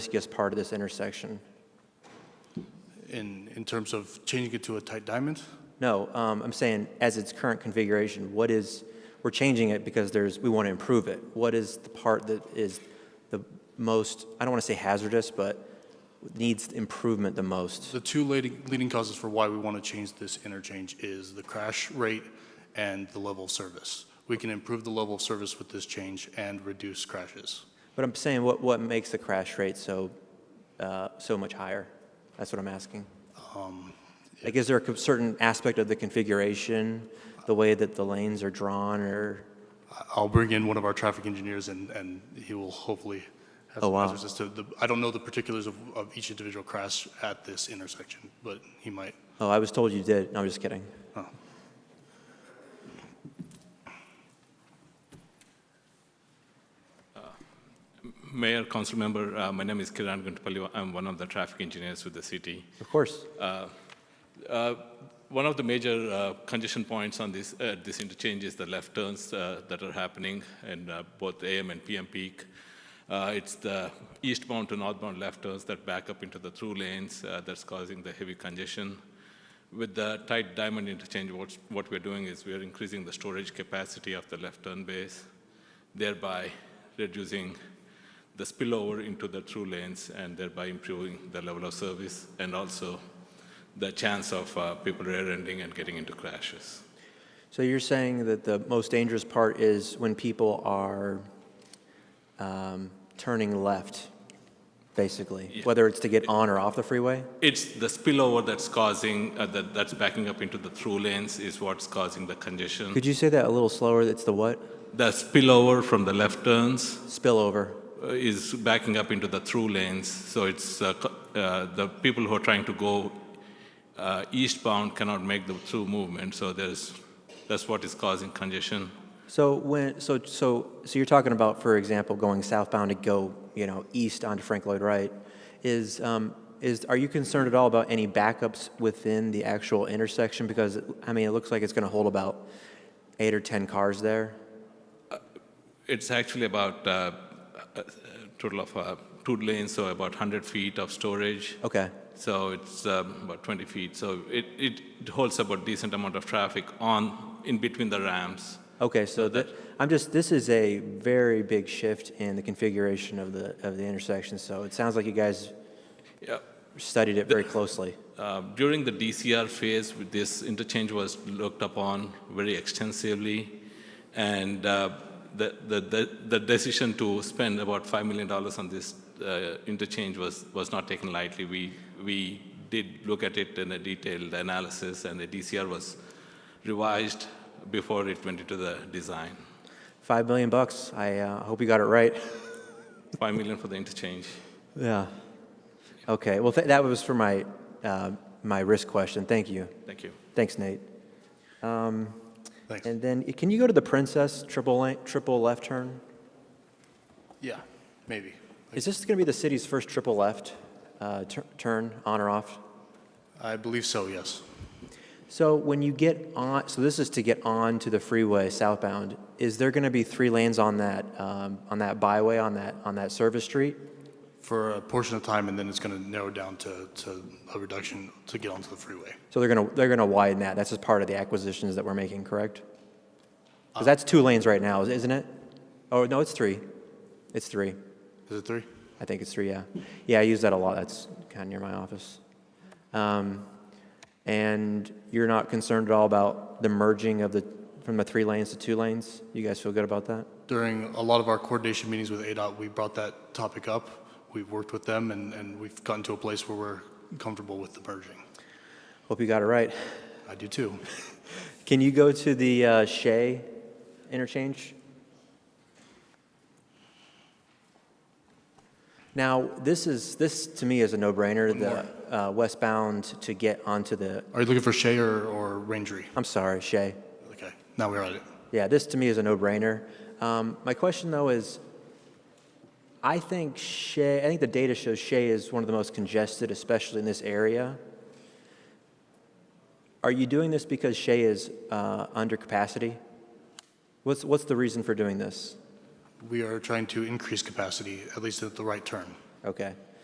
riskiest part of this intersection. in, in terms of changing it to a tight diamond? No, um, I'm saying as its current configuration, what is, we're changing it because there's, we want to improve it. What is the part that is the most, I don't want to say hazardous, but needs improvement the most? The two leading, leading causes for why we want to change this interchange is the crash rate and the level of service. We can improve the level of service with this change and reduce crashes. But I'm saying what, what makes the crash rate so, uh, so much higher? That's what I'm asking. Like, is there a co- certain aspect of the configuration, the way that the lanes are drawn or? I- I'll bring in one of our traffic engineers and, and he will hopefully have Oh, some wow. answers as to the, I don't know the particulars of, of each individual crash at this intersection, but he might. Oh, I was told you did. No, I'm just kidding. Mayor, council member, uh, my name is Kiran Guntupalli. I'm one of the traffic engineers with the city. Of course. Uh, One of the major uh, congestion points on this, at this interchange is the left turns uh, that are happening in uh, both AM and PM peak. Uh, It's the eastbound to northbound left turns that back up into the through lanes uh, that's causing the heavy congestion. With the tight diamond interchange, what's- what we're doing is we're increasing the storage capacity of the left turn base, thereby reducing the spillover into the through lanes and thereby improving the level of service and also the chance of uh, people rear-ending and getting into crashes. So you're saying that the most dangerous part is when people are um, turning left, basically, whether it's to get on or off the freeway? It's the spillover that's causing, uh, that, that's backing up into the through lanes is what's causing the congestion. Could you say that a little slower? It's the what? The spillover from the left turns Spillover. uh, is backing up into the through lanes. So it's uh, co- uh, the people who are trying to go uh, eastbound cannot make the through movement. So there's, that's what is causing congestion. So when so so so you're talking about, for example, going southbound to go you know east onto Frank Lloyd Wright, is um, is are you concerned at all about any backups within the actual intersection? Because I mean, it looks like it's going to hold about eight or ten cars there. It's actually about uh, a a total of uh, two lanes, so about 100 feet of storage. Okay. So it's um, about 20 feet. So it, it holds about decent amount of traffic on in between the ramps. Okay, so that, I'm just, this is a very big shift in the configuration of the, of the intersection, so it sounds like you guys Yeah. studied it very closely. Uh, during the DCR phase, with this interchange was looked upon very extensively, and uh, the, the, the, the decision to spend about $5 million on this uh, interchange was, was not taken lightly. We, we did look at it in a detailed analysis, and the DCR was revised before it went into the design. Five million bucks, I uh, hope you got it right. 5 million for the interchange. Yeah. Okay, well, th- that was for my, uh, my risk question, thank you. Thank you. Thanks, Nate. Thanks. And then, can you go to the Princess triple, lane- triple left turn? Yeah, maybe. Is this gonna be the city's first triple left, uh, tur- turn, on or off? I believe so, yes. So when you get on, so this is to get on to the freeway southbound. Is there going to be three lanes on that um, on that byway on that on that service street? For a portion of time, and then it's going to narrow down to, to a reduction to get onto the freeway. So they're going to they're going to widen that. That's just part of the acquisitions that we're making, correct? Because that's two lanes right now, isn't it? Oh no, it's three. It's three. Is it three? I think it's three. Yeah, yeah. I use that a lot. That's kind of near my office. Um, and you're not concerned at all about the merging of the from the three lanes to two lanes. You guys feel good about that? During a lot of our coordination meetings with ADOT, we brought that topic up. We've worked with them, and, and we've gotten to a place where we're comfortable with the merging. Hope you got it right. I do too. Can you go to the uh, Shea interchange? Now, this is, this to me is a no-brainer, the uh, westbound to get onto the, Are you looking for Shea or, or Rangery? I'm sorry, Shea. Okay, now we're at it. Yeah, this to me is a no-brainer. Um, My question, though, is, I think Shea, I think the data shows Shea is one of the most congested, especially in this area. Are you doing this because Shea is uh, under capacity? What's, what's the reason for doing this? We are trying to increase capacity, at least at the right turn. Okay.